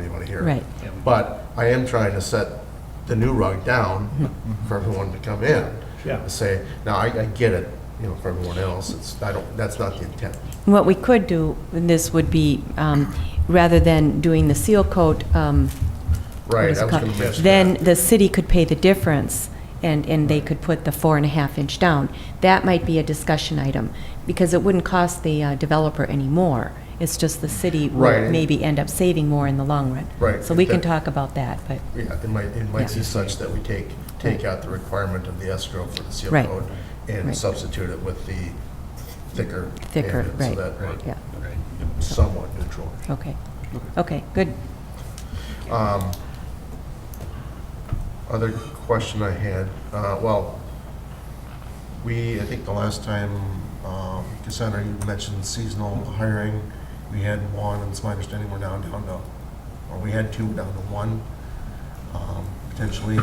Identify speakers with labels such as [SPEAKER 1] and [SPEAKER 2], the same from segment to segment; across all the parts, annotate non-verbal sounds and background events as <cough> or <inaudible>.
[SPEAKER 1] here.
[SPEAKER 2] Right.
[SPEAKER 1] But I am trying to set the new rug down
[SPEAKER 2] Mm-hmm.
[SPEAKER 1] for everyone to come in.
[SPEAKER 3] Yeah.
[SPEAKER 1] and Say, now, I, I get it, you know, for everyone else, it's, I don't, that's not the intent.
[SPEAKER 2] What we could do, in this would be, um, rather than doing the seal coat, um, what
[SPEAKER 1] Right,
[SPEAKER 2] is it
[SPEAKER 1] I was
[SPEAKER 2] called?
[SPEAKER 1] gonna mention
[SPEAKER 2] Then
[SPEAKER 1] that.
[SPEAKER 2] the city could pay the difference, and, and they could put the four and a half inch down. That might be a discussion item, because it wouldn't cost the uh, developer any more. It's just the city
[SPEAKER 1] Right.
[SPEAKER 2] would maybe end up saving more in the long run.
[SPEAKER 1] Right.
[SPEAKER 2] So we can
[SPEAKER 1] That-
[SPEAKER 2] talk about that, but,
[SPEAKER 1] Yeah, it might, it might be
[SPEAKER 2] Yeah.
[SPEAKER 1] such that we take, take out the requirement of the escrow for the seal
[SPEAKER 2] Right.
[SPEAKER 1] code
[SPEAKER 2] Right.
[SPEAKER 1] and substitute it with the thicker.
[SPEAKER 2] Thicker,
[SPEAKER 1] pavement,
[SPEAKER 2] right.
[SPEAKER 1] So that might
[SPEAKER 2] yeah,
[SPEAKER 1] be somewhat neutral.
[SPEAKER 2] okay. Okay, good.
[SPEAKER 1] Um, Other question I had, uh, well, we, I think the last time, um, Cassandra, you mentioned seasonal hiring. We had one, and it's my understanding we're now down to, or we had two, down to one, um, potentially.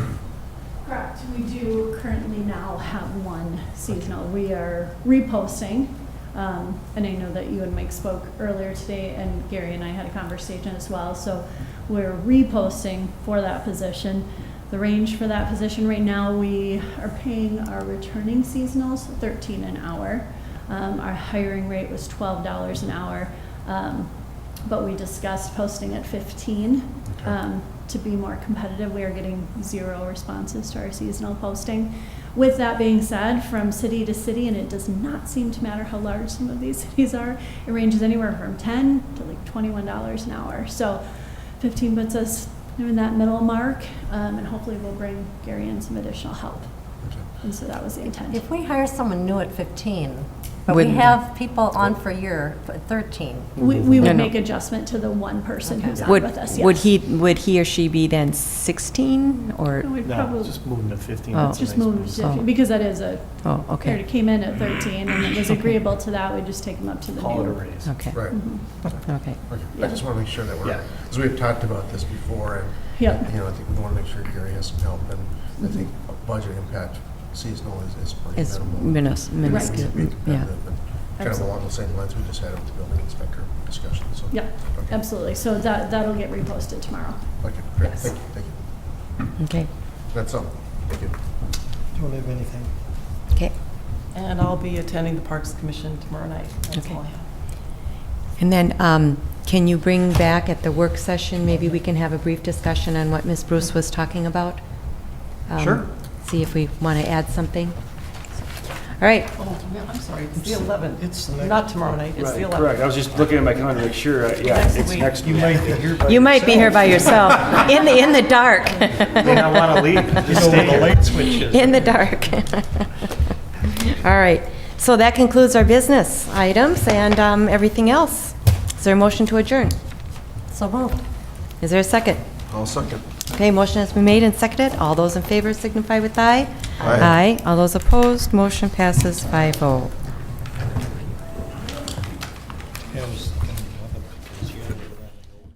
[SPEAKER 4] Correct, we do currently now have one seasonal. We are reposting, um, and I know that you and Mike spoke earlier today, and Gary and I had a conversation as well, so we're reposting for that position. The range for that position right now, we are paying our returning seasonals thirteen an hour. Um, Our hiring rate was twelve dollars an hour, um, but we discussed posting at fifteen.
[SPEAKER 1] Okay.
[SPEAKER 4] Um, to be more competitive, we are getting zero responses to our seasonal posting. With that being said, from city to city, and it does not seem to matter how large some of these <laughs> cities are, it ranges anywhere from ten to like twenty-one dollars an hour. So fifteen puts us in that middle mark, um, and hopefully we'll bring Gary in some additional help. And so that was the intent.
[SPEAKER 5] If we hire someone new at 15, but we
[SPEAKER 2] Wouldn't-
[SPEAKER 5] have people on for a year at 13,
[SPEAKER 4] We, we
[SPEAKER 2] No,
[SPEAKER 4] would
[SPEAKER 2] no.
[SPEAKER 4] make adjustment to the one person who's on
[SPEAKER 2] Would,
[SPEAKER 4] with us, yes.
[SPEAKER 2] would he, would he or she be then 16, or,
[SPEAKER 4] We'd
[SPEAKER 3] No,
[SPEAKER 4] probably-
[SPEAKER 3] just moving to 15.
[SPEAKER 2] Oh.
[SPEAKER 3] that's
[SPEAKER 4] It's just
[SPEAKER 3] a nice
[SPEAKER 4] moved,
[SPEAKER 2] Oh.
[SPEAKER 4] to- because that is a,
[SPEAKER 2] oh,
[SPEAKER 4] Or it
[SPEAKER 2] okay,
[SPEAKER 4] came in at 13 and it was agreeable to that, we just take them up to the new.
[SPEAKER 3] Call it a raise.
[SPEAKER 2] okay,
[SPEAKER 1] Right.
[SPEAKER 4] Mm-hmm.
[SPEAKER 2] okay.
[SPEAKER 1] Okay. I just want to make sure that we're,
[SPEAKER 3] Yeah.
[SPEAKER 1] because we've talked about this before, and
[SPEAKER 4] Yep,
[SPEAKER 1] You know, I think we want to make sure Gary has some help, and I think a budget impact seasonal is, is pretty
[SPEAKER 2] It's
[SPEAKER 1] minimal.
[SPEAKER 2] minus, minuscule,
[SPEAKER 1] We can be
[SPEAKER 2] yeah.
[SPEAKER 1] competitive, and Kind of along the same lines we just had with the building inspector discussion, so.
[SPEAKER 4] yep,
[SPEAKER 1] Okay.
[SPEAKER 4] absolutely. So that, that'll get reposted tomorrow.
[SPEAKER 1] Okay, great,
[SPEAKER 4] Yes.
[SPEAKER 1] thank you, thank you.
[SPEAKER 2] Okay,
[SPEAKER 1] That's all, thank you.
[SPEAKER 3] Don't have anything.
[SPEAKER 2] okay.
[SPEAKER 6] And I'll be attending the Parks Commission tomorrow night. That's all I have.
[SPEAKER 2] And then, um, can you bring back at the work session, maybe we can have a brief discussion on what Ms. Bruce was talking about? Um,
[SPEAKER 3] Sure.
[SPEAKER 2] See if we want to add something. All right,
[SPEAKER 6] Oh, yeah, I'm sorry, it's the 11th.
[SPEAKER 3] It's the next-
[SPEAKER 6] Not tomorrow night, it's the
[SPEAKER 7] Right,
[SPEAKER 6] 11th.
[SPEAKER 7] correct. I was just looking at my calendar to make sure, uh, yeah,
[SPEAKER 6] Next
[SPEAKER 7] it's
[SPEAKER 6] week.
[SPEAKER 7] next
[SPEAKER 3] You
[SPEAKER 7] week.
[SPEAKER 3] might be here by
[SPEAKER 2] you might be here
[SPEAKER 3] yourself.
[SPEAKER 2] by yourself, in the, in the dark,
[SPEAKER 7] May not want to
[SPEAKER 4] <laughs>
[SPEAKER 7] leave,
[SPEAKER 3] You
[SPEAKER 7] just
[SPEAKER 3] know
[SPEAKER 7] stay
[SPEAKER 3] where the
[SPEAKER 7] here.
[SPEAKER 3] light switch is.
[SPEAKER 2] in the dark. <laughs> All right, so that concludes our business items and um, everything else. Is there a motion to adjourn?
[SPEAKER 5] so moved.
[SPEAKER 2] Is there a second?
[SPEAKER 1] I'll second.
[SPEAKER 2] Okay, motion has been made and seconded. All those in favor signify with aye.
[SPEAKER 1] Aye.
[SPEAKER 2] All those opposed, motion passes 5-0.